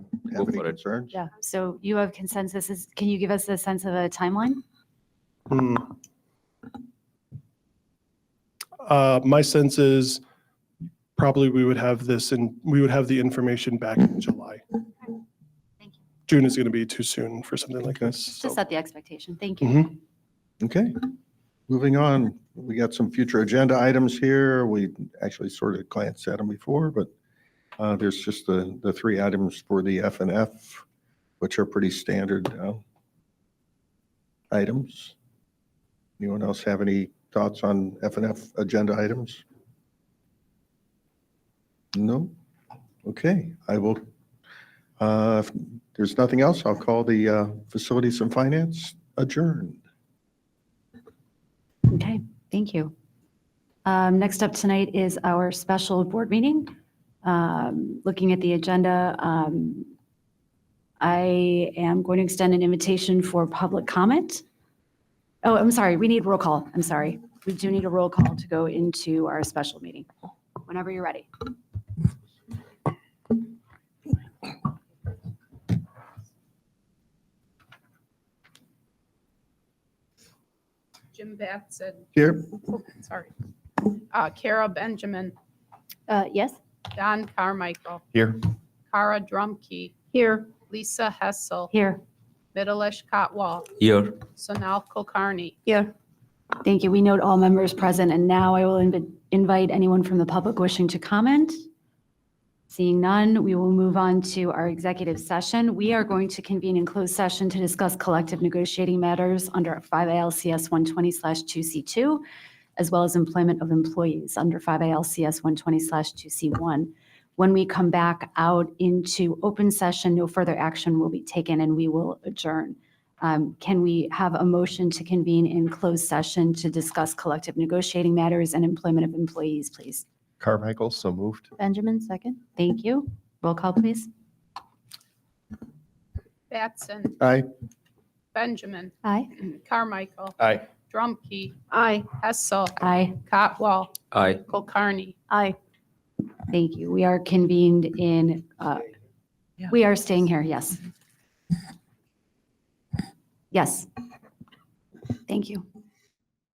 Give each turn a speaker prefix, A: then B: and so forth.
A: Go
B: have any
A: for it.
B: concerns?
C: Yeah, so you have consensus. Is- Can you give us a sense of a timeline?
D: Hmm. Uh, my sense is probably we would have this and we would have the information back in July.
C: Thank you.
D: June is going to be too soon for something like this. so-
C: Just set the expectation. Thank you.
D: Mhm.
B: Okay, moving on, we got some future agenda items here. We actually sort of glanced at them before, but uh, there's just the, the three items for the F and F, which are pretty standard uh, items. Anyone else have any thoughts on F and F agenda items? No? Okay, I will, uh, if there's nothing else, I'll call the uh, Facilities and Finance adjourned.
C: Okay, thank you. Um, Next up tonight is our special board meeting. Um, Looking at the agenda, um, I am going to extend an invitation for public comment. Oh, I'm sorry, we need roll call. I'm sorry. We do need a roll call to go into our special meeting, whenever you're ready.
E: Jim Batson,
B: Here,
E: oh, sorry. Uh, Kara Benjamin,
C: Uh, Yes?
E: Don Carmichael,
F: Here.
E: Kara Drumkey. Here. Lisa Hessel,
C: Here.
E: Middleish Cotwall,
A: Here.
E: Sonal Kulkarni.
C: Thank you. We note all members present, and now I will invi- invite anyone from the public wishing to comment. Seeing none, we will move on to our executive session. We are going to convene in closed session to discuss collective negotiating matters under 5 ALCS 120/2C2, as well as employment of employees under 5 ALCS 120/2C1. When we come back out into open session, no further action will be taken, and we will adjourn. Um, Can we have a motion to convene in closed session to discuss collective negotiating matters and employment of employees, please?
F: Carmichael, so moved.
C: Benjamin, second. Thank you. Roll call, please.
E: Batson,
B: aye.
E: Benjamin,
C: Aye.
E: Carmichael,
F: Aye.
E: Drumkey. Aye. Hessel,
C: Aye.
E: Cotwall,
A: Aye.
E: Kulkarni.
C: Aye. Thank you. We are convened in, uh, we are staying here, yes. Yes. Thank you.